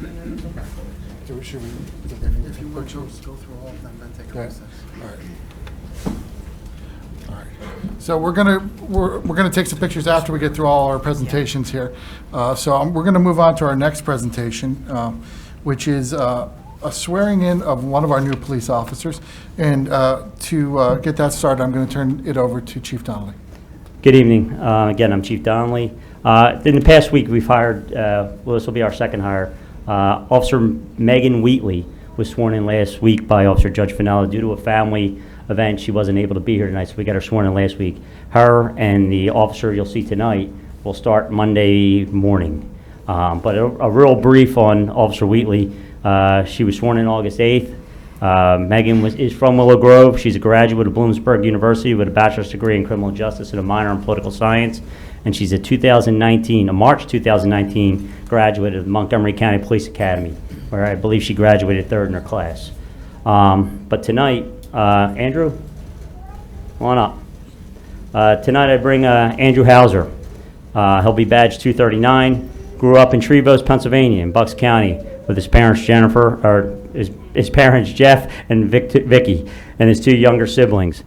Do we- Should we? do we need If to you would, put- Joe, go through all of them, then take a Okay, recess. all right. All right. So we're gonna, we're, we're gonna take some pictures after we get through all our presentations here. Uh, so um, we're gonna move on to our next presentation, um, which is, uh, a swearing in of one of our new police officers. And, uh, to, uh, get that started, I'm gonna turn it over to Chief Donnelly. Good evening. Uh, Again, I'm Chief Donnelly. Uh, In the past week, we've hired, uh, well, this will be our second hire. Uh, Officer Megan Wheatley was sworn in last week by Officer Judge Finella due to a family event. She wasn't able to be here tonight, so we got her sworn in last week. Her and the officer you'll see tonight will start Monday morning. Um, But a a real brief on Officer Wheatley. Uh, She was sworn in August 8th. Uh, Megan was, is from Willow Grove. She's a graduate of Bloomsburg University with a bachelor's degree in criminal justice and a minor in political science. And she's a 2019, a March 2019 graduate of Montgomery County Police Academy, where I believe she graduated third in her class. Um, but tonight, uh, Andrew, come on up. Uh, Tonight I bring uh, Andrew Hauser. Uh, He'll be badge 239. Grew up in Trevose, Pennsylvania, in Bucks County, with his parents Jennifer, or his his parents Jeff and Vic- Vicky, and his two younger siblings.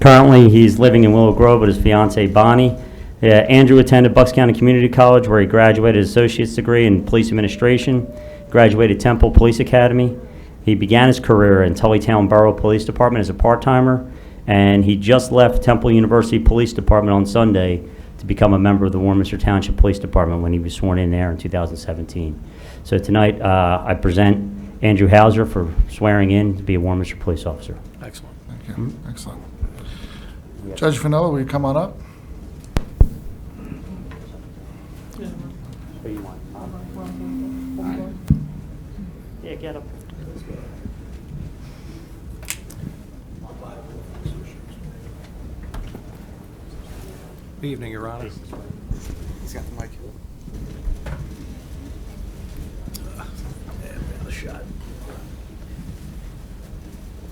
Currently, he's living in Willow Grove with his fiancee Bonnie. Uh, Andrew attended Bucks County Community College, where he graduated his associate's degree in police administration, graduated Temple Police Academy, he began his career in Tullytown Borough Police Department as a part-timer, and he just left Temple University Police Department on Sunday to become a member of the Warminster Township Police Department when he was sworn in there in 2017. So tonight, uh, I present Andrew Hauser for swearing in to be a Warminster police officer. Excellent. Excellent. Judge Fennella, will you come on up? Yeah, get up. Good evening, Your Honor. He's got the mic.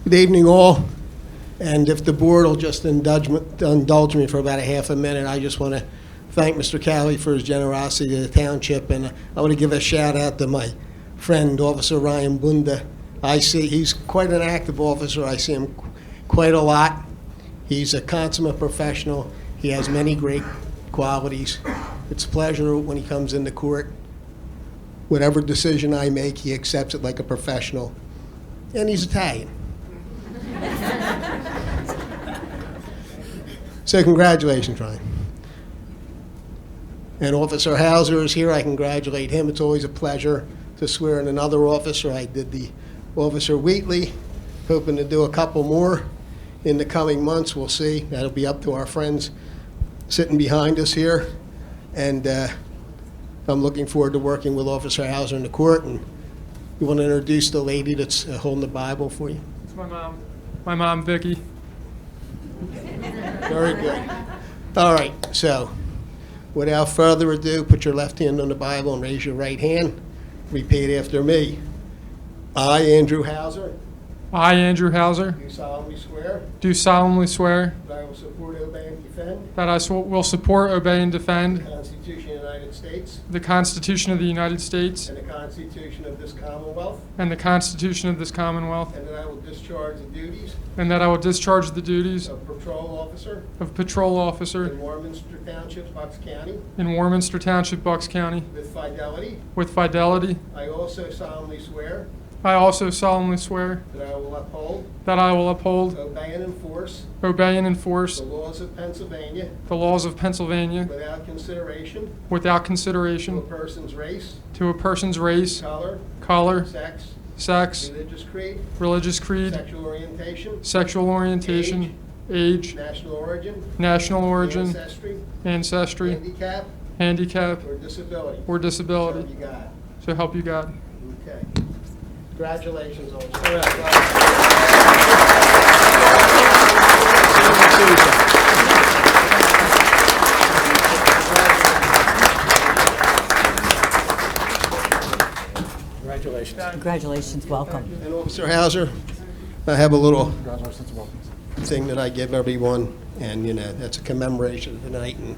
Good evening, all. And if the board will just indulge, me- indulge me for about a half a minute, I just want to thank Mr. Cowley for his generosity to the township, and I want to give a shout out to my friend, Officer Ryan Bunda. I see, he's quite an active officer, I see him qu- quite a lot. He's a consummate professional, he has many great qualities. It's a pleasure when he comes into court. Whatever decision I make, he accepts it like a professional, and he's Italian. So congratulations, Ryan. And Officer Hauser is here. I congratulate him. It's always a pleasure to swear in another officer. I did the Officer Wheatley, hoping to do a couple more in the coming months. We'll see. That'll be up to our friends sitting behind us here. And uh, I'm looking forward to working with Officer Hauser in the court. And you want to introduce the lady that's uh, holding the Bible for you? It's my mom. My mom, Vicky. Very good. All right, so without further ado, put your left hand on the Bible and raise your right hand. Repeat after me. I, Andrew Hauser, I, Andrew Hauser, do solemnly swear do solemnly swear that I will support, obey, and defend that I sw- will support, obey, and the defend Constitution of the United States the Constitution of the United States and the Constitution of this Commonwealth, and the Constitution of this Commonwealth, and that I will discharge the duties and that I will discharge the duties of patrol officer of patrol in officer Warminster Township, Bucks County, in Warminster Township, Bucks County, with fidelity. with fidelity. I also solemnly swear I also solemnly swear that I will uphold, that I will uphold, obey, and enforce obey, and the enforce laws of Pennsylvania the laws of Pennsylvania Without consideration without to a consideration person's race, to a person's race, color, color, sex, sex, religious creed, religious creed, sexual orientation, sexual orientation, age, national origin, national origin, ancestry, ancestry, handicap, handicap, or disability. or So disability. you got it. So help you God. Okay. Congratulations, officer. Congratulations. Congratulations, welcome. And Officer Hauser, I have a little Congratulations and welcome. thing that I give everyone, and, you know, that's a commemoration of the night, and